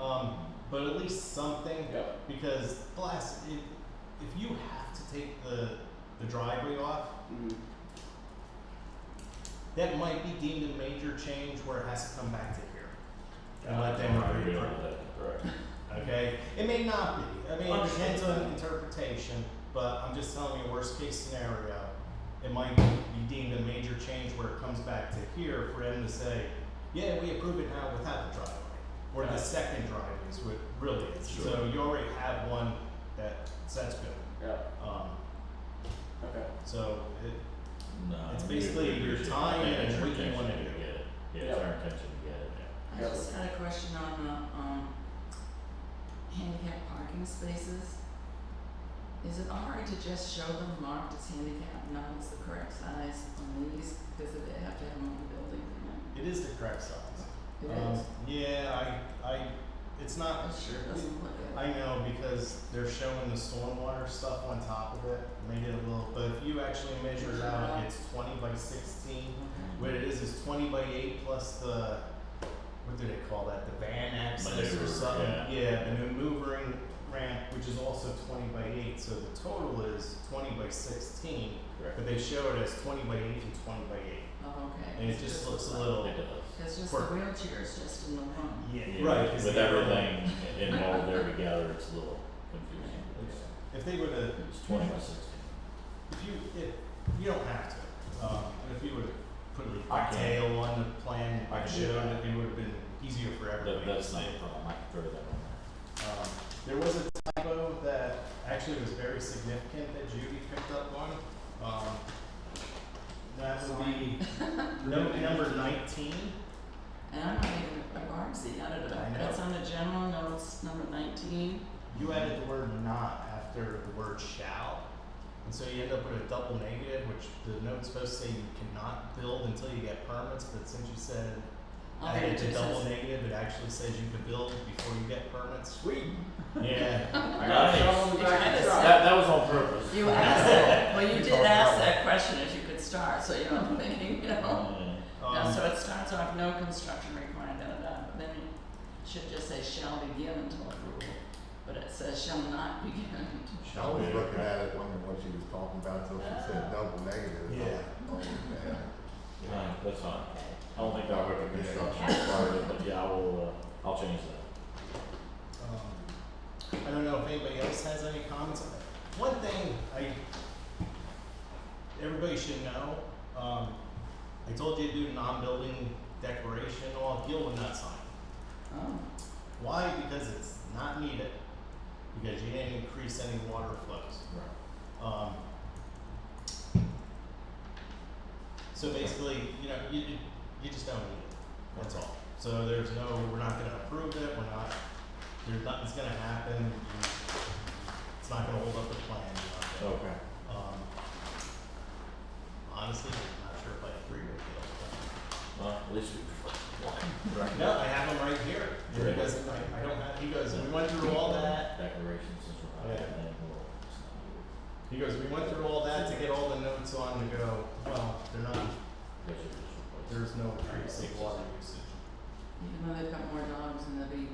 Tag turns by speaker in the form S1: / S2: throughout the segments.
S1: Um, but at least something
S2: Yeah.
S1: because blast if if you have to take the the driveway off,
S2: Mhm.
S1: that might be deemed a major change where it has to come back to here. And
S3: I
S1: let them
S3: don't agree
S1: reapprove.
S3: with that. Correct.
S1: Okay, it may not be. I mean, it
S2: Understood.
S1: depends on interpretation, but I'm just telling you, worst case scenario, it might be deemed a major change where it comes back to here for him to say, yeah, we approve it now without the driveway. Or the
S2: Right.
S1: second driveway is what really is. So
S3: Sure.
S1: you already have one that, so that's good.
S2: Yeah.
S1: Um,
S2: Okay.
S1: so it,
S3: No.
S1: It's
S3: we- we
S1: basically your
S3: appreciate it.
S1: time
S3: I think
S1: and
S3: it's your
S1: what you
S3: intention
S1: wanna
S3: to
S1: do.
S3: get it. Yeah, it's our intention to get it.
S4: I just had a question on the um handicap parking spaces. Is it alright to just show them marked as handicap, not as the correct size on these, because they have to have them on the building,
S1: it is the correct size.
S4: you know? It
S1: Um,
S4: is, Oh,
S1: Yeah, I, I, it's not
S4: it sure doesn't look
S1: I
S4: good.
S1: know because they're showing the stormwater stuff on top of it, made it a little, but if you actually measure it out, it's twenty by sixteen.
S3: Yeah.
S1: What it is is twenty by eight plus the, what do they call that, the van access or
S3: Maneuver,
S1: something?
S3: yeah.
S1: the maneuvering ramp, which is also twenty by eight, so the total is twenty by sixteen,
S3: Correct.
S1: but they show it as twenty by eight and twenty by eight.
S4: Oh, okay.
S1: And it
S4: It's
S1: just looks a
S4: like-
S1: little,
S3: It does.
S4: It's just the
S1: quirky.
S4: wheelchair is just in the room.
S1: yeah,
S3: Yeah,
S1: right. 'cause
S3: With
S1: they have-
S3: everything involved there together, it's a little confusing.
S1: If they would've
S3: It's twenty by sixteen.
S1: If you, if, you don't have to, um, but if you would put
S3: I
S1: like a
S3: can.
S1: tail on the plan,
S3: I
S1: I
S3: can do
S1: showed
S3: that.
S1: it, it would have been easier for
S3: That,
S1: everybody.
S3: that's not a problem, I can throw that on there.
S1: Um, there was a typo that actually was very significant that Judy picked up on, um, that would be note number nineteen.
S4: And I'm not even, I've already seen that, it-
S1: I know.
S4: that's on the general notes, number nineteen.
S1: You added the word not after the word shall, and so you end up with a double negative, which the note's supposed to say you cannot build until you get permits, but since you said
S4: I'll
S1: I
S4: read
S1: think it's
S4: it.
S1: a
S4: It
S1: double
S4: says-
S1: negative, it actually says you can build before you get permits.
S2: Sweet.
S1: Yeah.
S2: I got a
S3: Nice.
S2: shovel in the
S4: It's
S2: back of
S4: kinda
S2: the truck.
S3: That, that was on purpose.
S4: You asked that, well, you did ask that question if you could start, so you know, I'm thinking, you
S3: Um,
S4: know.
S3: Yeah.
S4: Now,
S1: Um,
S4: so it starts off, no construction required, da, da, da, but then it should just say shall be given to approval. But it says shall not be given to.
S5: I was looking at it, wondering what she was talking about, till she said double negative.
S1: Yeah.
S5: Oh, man.
S3: No, that's fine.
S4: Okay.
S3: I don't think that would be construction part of it, but yeah, I will, uh, I'll change that.
S1: um, I don't know if anybody else has any comments. One thing I, everybody should know, um, I told you to do non-building declaration, well, Gil would not sign.
S4: Oh,
S1: Why? Because it's not needed, because you didn't increase any water flows. Um, so basically, you know, you, you, you just don't need it. That's all. So there's no, we're not gonna approve it, we're not, there's nothing's gonna happen. you- It's not gonna hold up the plan, you know.
S3: Okay.
S1: Um, honestly, I'm not sure if I agree with you.
S3: Well, at least we.
S1: but- No, I have them right here. And He
S3: Right.
S1: goes, I, I don't have, he goes, we went through all that.
S3: Declarations since we're not
S1: Yeah.
S3: in that world, it's not
S1: He goes, we went through all that to get all the notes on to go, well, they're not,
S3: good. Those are just replaced.
S1: there's no increase in water usage.
S4: even though they've got more dogs and they'll be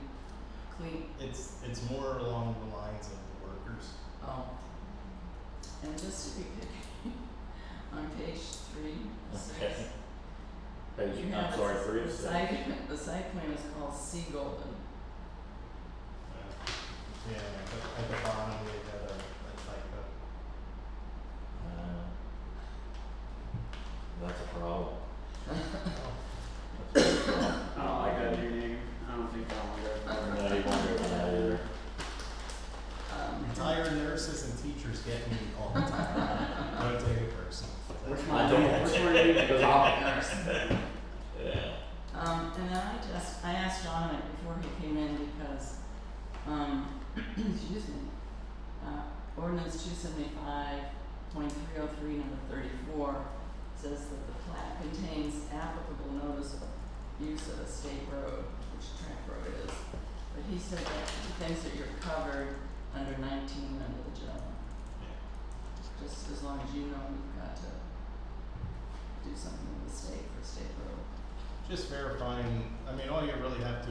S4: clean,
S1: It's it's more along the lines of the workers.
S4: oh. And just to be picky, on page three,
S3: Okay.
S4: six.
S3: Page,
S4: you have
S3: I'm
S4: a
S3: sorry,
S4: s-
S3: three
S4: The
S3: of six.
S4: site, the site plan is called Sea Golden.
S1: Yeah, but at the bottom they got a, a typo.
S3: Uh, That's a problem.
S2: I don't like that new name. I don't think I want to go for it.
S3: No, you won't get that either.
S4: Um,
S3: Mm-hmm.
S1: Retired nurses and teachers get me all the time. Don't take it personal.
S2: Which
S3: I
S2: one?
S3: don't-
S2: Which one do you think is off?
S4: nurse.
S3: Yeah.
S4: Um, and then I just, I asked John it before he came in because, um, excuse me, uh, ordinance two seventy-five point three oh three, number thirty-four, says that the plat contains applicable notice of use of a state road, which track road is. But he said that he thinks that you're covered under nineteen under the general, just as long as you know you've got to do something with the state for state road.
S1: Just verifying, I mean, all you really have to